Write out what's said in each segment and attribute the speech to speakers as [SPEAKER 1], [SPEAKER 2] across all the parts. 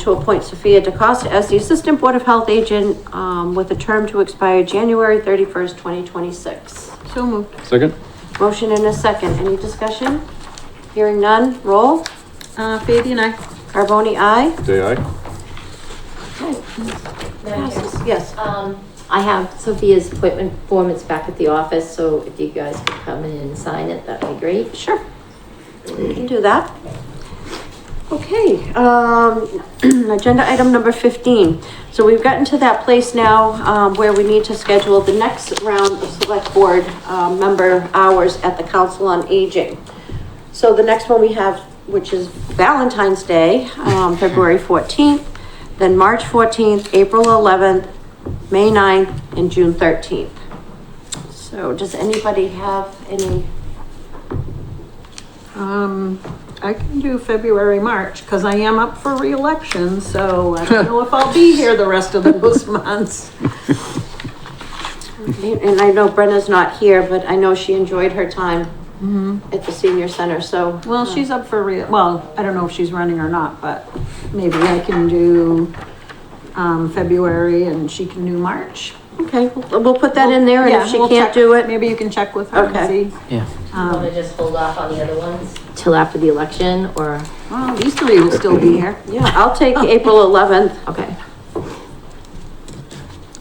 [SPEAKER 1] to appoint Sophia DeCosta as the Assistant Board of Health Agent, um, with a term to expire January thirty-first, twenty twenty-six.
[SPEAKER 2] So moved.
[SPEAKER 3] Second?
[SPEAKER 1] Motion and a second. Any discussion? Hearing none. Roll.
[SPEAKER 2] Uh, Fabi and I.
[SPEAKER 1] Carboni, aye.
[SPEAKER 3] Day aye?
[SPEAKER 4] Madam Chair,
[SPEAKER 1] Yes.
[SPEAKER 4] Um, I have Sophia's appointment form, it's back at the office, so if you guys could come in and sign it, that'd be great.
[SPEAKER 1] Sure. We can do that. Okay, um, agenda item number fifteen. So we've gotten to that place now, um, where we need to schedule the next round of select board, uh, member hours at the Council on Aging. So the next one we have, which is Valentine's Day, um, February fourteenth, then March fourteenth, April eleventh, May 9th, and June thirteenth. So does anybody have any
[SPEAKER 2] Um, I can do February, March, because I am up for reelection, so I don't know if I'll be here the rest of those months.
[SPEAKER 1] And I know Brenna's not here, but I know she enjoyed her time
[SPEAKER 4] Mm-hmm.
[SPEAKER 1] at the senior center, so.
[SPEAKER 2] Well, she's up for re, well, I don't know if she's running or not, but maybe I can do, um, February and she can do March.
[SPEAKER 1] Okay, we'll we'll put that in there and
[SPEAKER 2] Yeah,
[SPEAKER 1] if she
[SPEAKER 2] we'll
[SPEAKER 1] can't
[SPEAKER 2] check-
[SPEAKER 1] do it,
[SPEAKER 2] Maybe you can check with her and
[SPEAKER 1] Okay.
[SPEAKER 2] see. Um,
[SPEAKER 5] Yeah.
[SPEAKER 4] Want to just hold off on the other ones? Till after the election, or,
[SPEAKER 2] Well, these three will still be here.
[SPEAKER 1] yeah, I'll take
[SPEAKER 4] Oh.
[SPEAKER 1] April eleventh.
[SPEAKER 4] okay.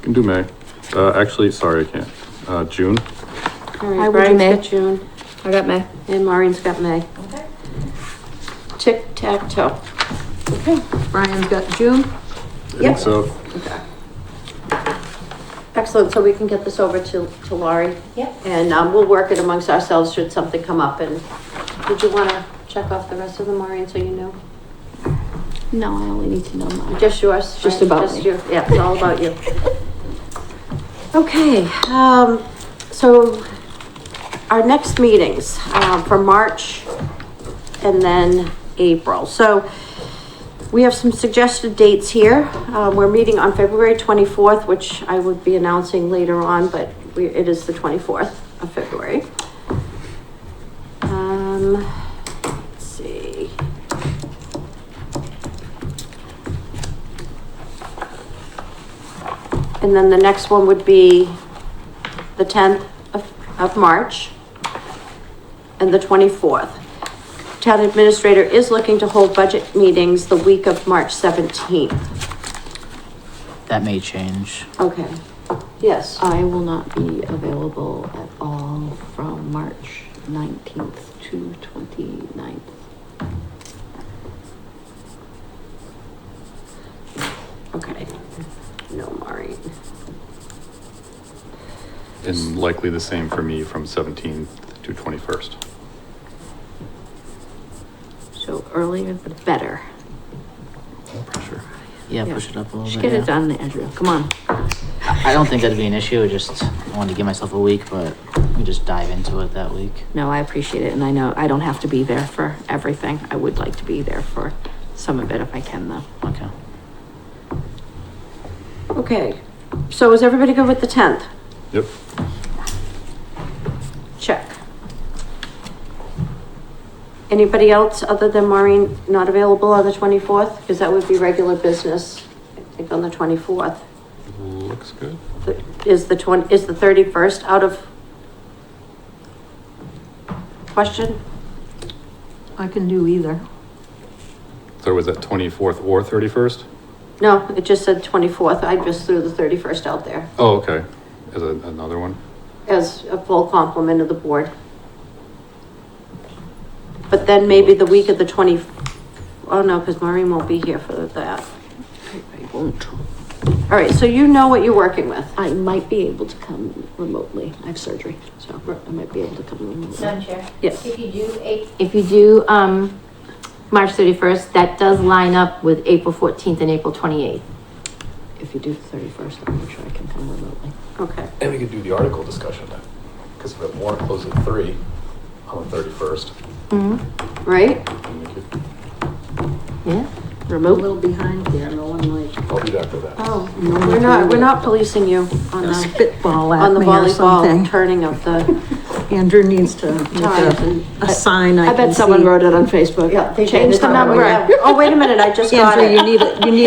[SPEAKER 3] Can do May. Uh, actually, sorry, I can't. Uh, June?
[SPEAKER 1] All right,
[SPEAKER 4] I will do
[SPEAKER 1] Brian's
[SPEAKER 4] May.
[SPEAKER 1] got June
[SPEAKER 4] I got May.
[SPEAKER 1] and Maureen's got May. Tic tac toe. Okay,
[SPEAKER 2] Brian's got June.
[SPEAKER 3] I
[SPEAKER 1] Yep.
[SPEAKER 3] think so.
[SPEAKER 1] excellent, so we can get this over to, to Laurie.
[SPEAKER 4] Yep.
[SPEAKER 1] And, um, we'll work it amongst ourselves should something come up and, did you wanna check off the rest of them, Maureen, so you know?
[SPEAKER 6] No, I only need to know mine.
[SPEAKER 1] Just yours? right?
[SPEAKER 6] Just about me.
[SPEAKER 1] your- Yeah, it's all about you. Okay, um, so our next meetings, um, for March and then April. So we have some suggested dates here. Uh, we're meeting on February twenty-fourth, which I would be announcing later on, but we, it is the twenty-fourth of February. Um, let's see. And then the next one would be the tenth of, of March and the twenty-fourth. Town administrator is looking to hold budget meetings the week of March seventeenth.
[SPEAKER 5] That may change.
[SPEAKER 1] Okay, yes.
[SPEAKER 6] I will not be available at all from March nineteenth to 29th.
[SPEAKER 1] Okay. No, Maureen.
[SPEAKER 3] And likely the same for me from seventeenth to twenty-first.
[SPEAKER 6] So earlier the better.
[SPEAKER 3] No pressure.
[SPEAKER 5] Yeah, push it up a little
[SPEAKER 6] Just
[SPEAKER 5] bit.
[SPEAKER 6] get
[SPEAKER 5] yeah.
[SPEAKER 6] it done, Andrew. Come on.
[SPEAKER 5] I I don't think that'd be an issue. I just wanted to give myself a week, but we just dive into it that week.
[SPEAKER 6] No, I appreciate it, and I know I don't have to be there for everything. I would like to be there for some of it if I can, though.
[SPEAKER 5] Okay.
[SPEAKER 1] Okay, so is everybody good with the tenth?
[SPEAKER 3] Yep.
[SPEAKER 1] Check. Anybody else other than Maureen not available on the twenty-fourth? Because that would be regular business, I think, on the twenty-fourth.
[SPEAKER 3] Looks good.
[SPEAKER 1] The- Is the twenty, is the thirty-first out of question?
[SPEAKER 2] I can do either.
[SPEAKER 3] So was that twenty-fourth or thirty-first?
[SPEAKER 1] No, it just said twenty-fourth. I just threw the thirty-first out there
[SPEAKER 3] Oh, okay. Is that another one?
[SPEAKER 1] as a full complement of the board. But then maybe the week of the twenty, oh no, because Maureen won't be here for that.
[SPEAKER 6] I, I won't.
[SPEAKER 1] All right, so you know what you're working with.
[SPEAKER 6] I might be able to come remotely. I have surgery, so I might be able to come remotely.
[SPEAKER 4] Madam Chair?
[SPEAKER 1] Yes.
[SPEAKER 4] If you do, eight- if you do, um, March thirty-first, that does line up with April fourteenth and April twenty-eighth.
[SPEAKER 6] If you do the thirty-first, I'll make sure I can come remotely.
[SPEAKER 1] Okay,
[SPEAKER 7] And we could do the article discussion then, because if the warrant closes at three on the thirty-first,
[SPEAKER 1] right?
[SPEAKER 7] then we could,
[SPEAKER 4] Yeah.
[SPEAKER 2] A
[SPEAKER 6] Remote?
[SPEAKER 2] little behind here, no one like
[SPEAKER 7] I'll be back for that.
[SPEAKER 1] Oh, we're not, we're not policing you on the,
[SPEAKER 2] spitball
[SPEAKER 1] on
[SPEAKER 2] at
[SPEAKER 1] the
[SPEAKER 2] me or
[SPEAKER 1] volleyball
[SPEAKER 2] something.
[SPEAKER 1] turning of the,
[SPEAKER 2] Andrew needs to make a, a sign I
[SPEAKER 6] I
[SPEAKER 2] can
[SPEAKER 6] bet someone
[SPEAKER 2] see.
[SPEAKER 6] wrote it on Facebook.
[SPEAKER 1] Yeah, they
[SPEAKER 6] Change
[SPEAKER 1] did.
[SPEAKER 6] the number.
[SPEAKER 1] Oh, wait a minute, I just got
[SPEAKER 2] Andrew,
[SPEAKER 1] it.
[SPEAKER 2] you need, it. you need